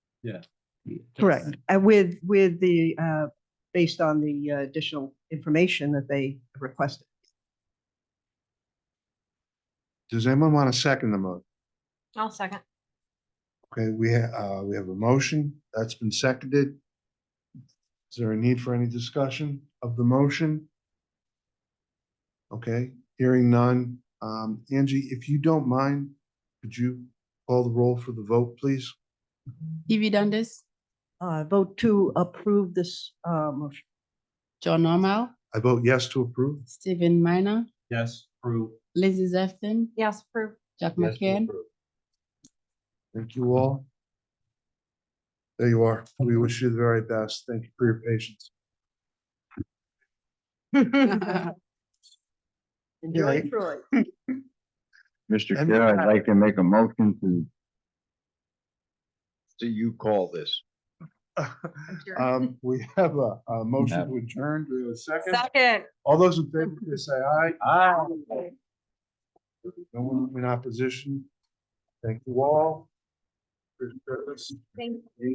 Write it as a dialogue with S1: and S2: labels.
S1: Yeah.
S2: Correct, Uh, with, with the, uh, based on the uh, additional information that they requested.
S3: Does anyone want to second the motion?
S4: I'll second.
S3: Okay, we, ha- uh, we have a motion that's been seconded. Is there a need for any discussion of the motion? Okay, hearing none. Um, Angie, if you don't mind, could you call the roll for the vote, please?
S5: Stevie Dundas,
S2: Uh, vote to approve this, uh, motion.
S5: John Normal,
S3: I vote yes to approve.
S5: Stephen Minor,
S1: Yes, approve.
S5: Lizzie Zefton,
S4: Yes, approve.
S5: Jack
S1: Yes, to
S5: McCann.
S1: approve.
S3: Thank you all. There you are. We wish you the very best. Thank you for your patience.
S2: Enjoy Troy.
S6: Mr.
S3: And-
S6: Chair, I'd like to make a motion to see you call this.
S3: Um, we have a, a motion to adjourn. Do we have a second?
S4: Second.
S3: All those in favor, please say aye. Aye. No one in opposition. Thank you all. Appreciate this.
S4: Thank